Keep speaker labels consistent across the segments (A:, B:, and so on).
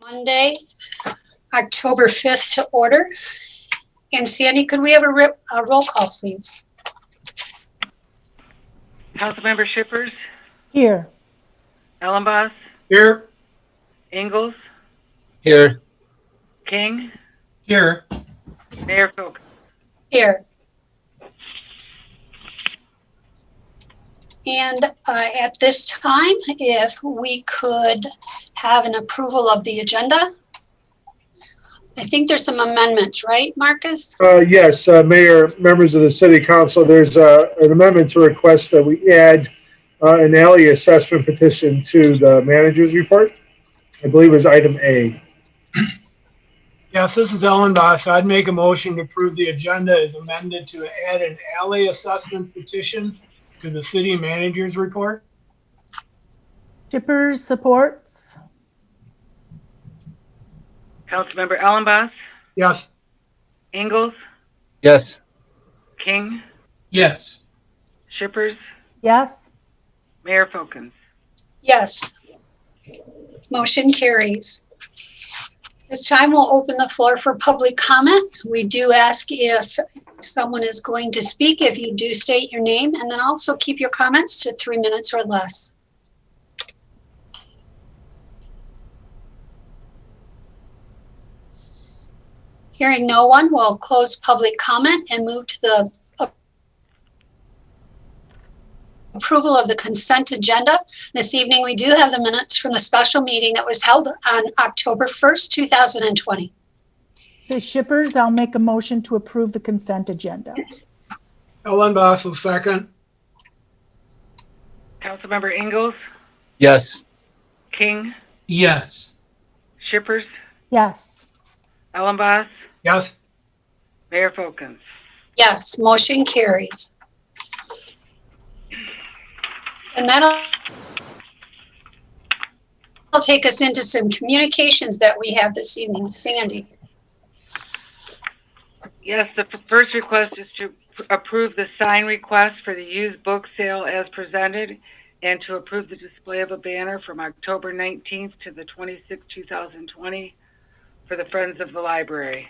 A: Monday, October 5th to order. And Sandy, could we have a rip- a roll call, please?
B: Councilmember Shippers,
C: Here.
B: Ellenboss,
D: Here.
B: Ingalls,
D: Here.
B: King,
D: Here.
B: Mayor Folk.
A: Here. And uh, at this time, if we could have an approval of the agenda? I think there's some amendments, right, Marcus?
E: Uh, Yes, uh, Mayor, members of the City Council, there's uh, an amendment to request that we add uh, an alley assessment petition to the manager's report. I believe is item A.
D: Yes, this is Ellen Boss. I'd make a motion to approve the agenda as amended to add an alley assessment petition to the city manager's report.
C: Shippers supports.
B: Councilmember Ellenboss,
D: Yes.
B: Ingalls,
F: Yes.
B: King,
G: Yes,
B: Shippers,
C: Yes.
B: Mayor Folkins.
A: Yes. Motion carries. This time we'll open the floor for public comment. We do ask if someone is going to speak, if you do state your name, and then also keep your comments to three minutes or less. Hearing no one, we'll close public comment and move to the a- approval of the consent agenda. This evening, we do have the minutes from the special meeting that was held on October 1st, 2020.
C: The shippers, I'll make a motion to approve the consent agenda.
D: Ellen Boss will second.
B: Councilmember Ingalls,
F: Yes.
B: King,
G: yes,
B: Shippers,
C: Yes.
B: Ellenboss,
D: Yes.
B: Mayor Folkins.
A: Yes, motion carries. And that'll that'll take us into some communications that we have this evening. Sandy?
B: Yes, the f- first request is to pr- approve the sign request for the used book sale as presented and to approve the display of a banner from October 19th to the 26th, 2020 for the Friends of the Library.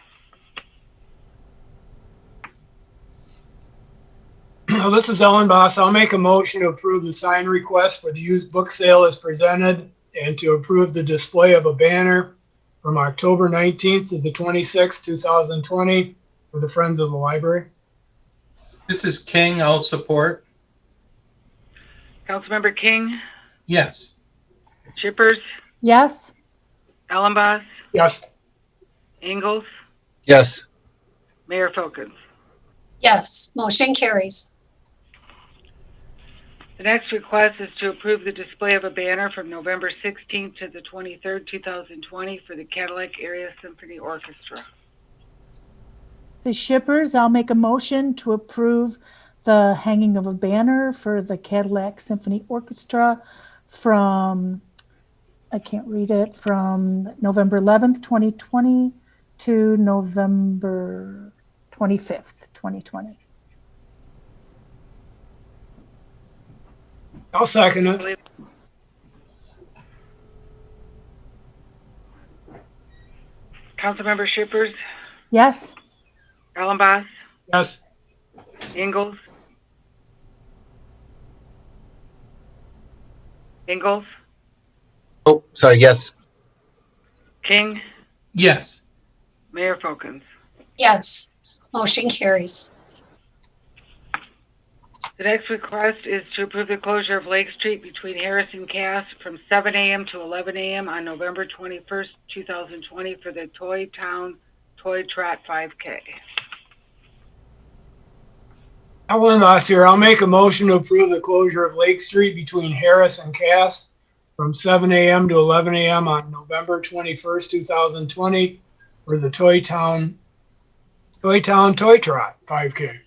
D: Well, this is Ellen Boss. I'll make a motion to approve the sign request for the used book sale as presented and to approve the display of a banner from October 19th to the 26th, 2020 for the Friends of the Library.
G: this is King, I'll support.
B: Councilmember King,
G: Yes,
B: Shippers,
C: Yes.
B: Ellenboss,
D: Yes.
B: Ingalls,
F: Yes.
B: Mayor Folkins.
A: Yes, motion carries.
B: The next request is to approve the display of a banner from November 16th to the 23rd, 2020 for the Cadillac Area Symphony Orchestra.
C: The shippers, I'll make a motion to approve the hanging of a banner for the Cadillac Symphony Orchestra from, I can't read it, from November 11th, 2020 to November 25th, 2020.
D: I'll second it.
B: Councilmember Shippers,
C: Yes.
B: Allenboss,
D: Yes.
B: Ingalls. Ingalls,
F: Oh, sorry. Yes.
B: King,
G: yes,
B: Mayor Folkins.
A: Yes, motion carries.
B: The next request is to approve the closure of Lake Street between Harris and Cass from 7 a.m. to 11 a.m. on November 21st, 2020 for the Toy Town Toy Trot 5K.
D: Ellen Boss here. I'll make a motion to approve the closure of Lake Street between Harris and Cass from 7 a.m. to 11 a.m. on November 21st, 2020 for the Toy Town, Toy Town Toy Trot 5K.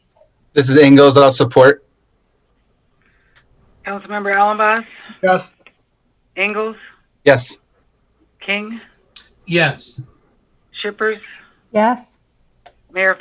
F: This is Ingalls. I'll support.
B: Councilmember Allenboss,
D: Yes.
B: Ingalls,
F: Yes.
B: King,
G: yes.
B: Shippers,
C: Yes.
B: Mayor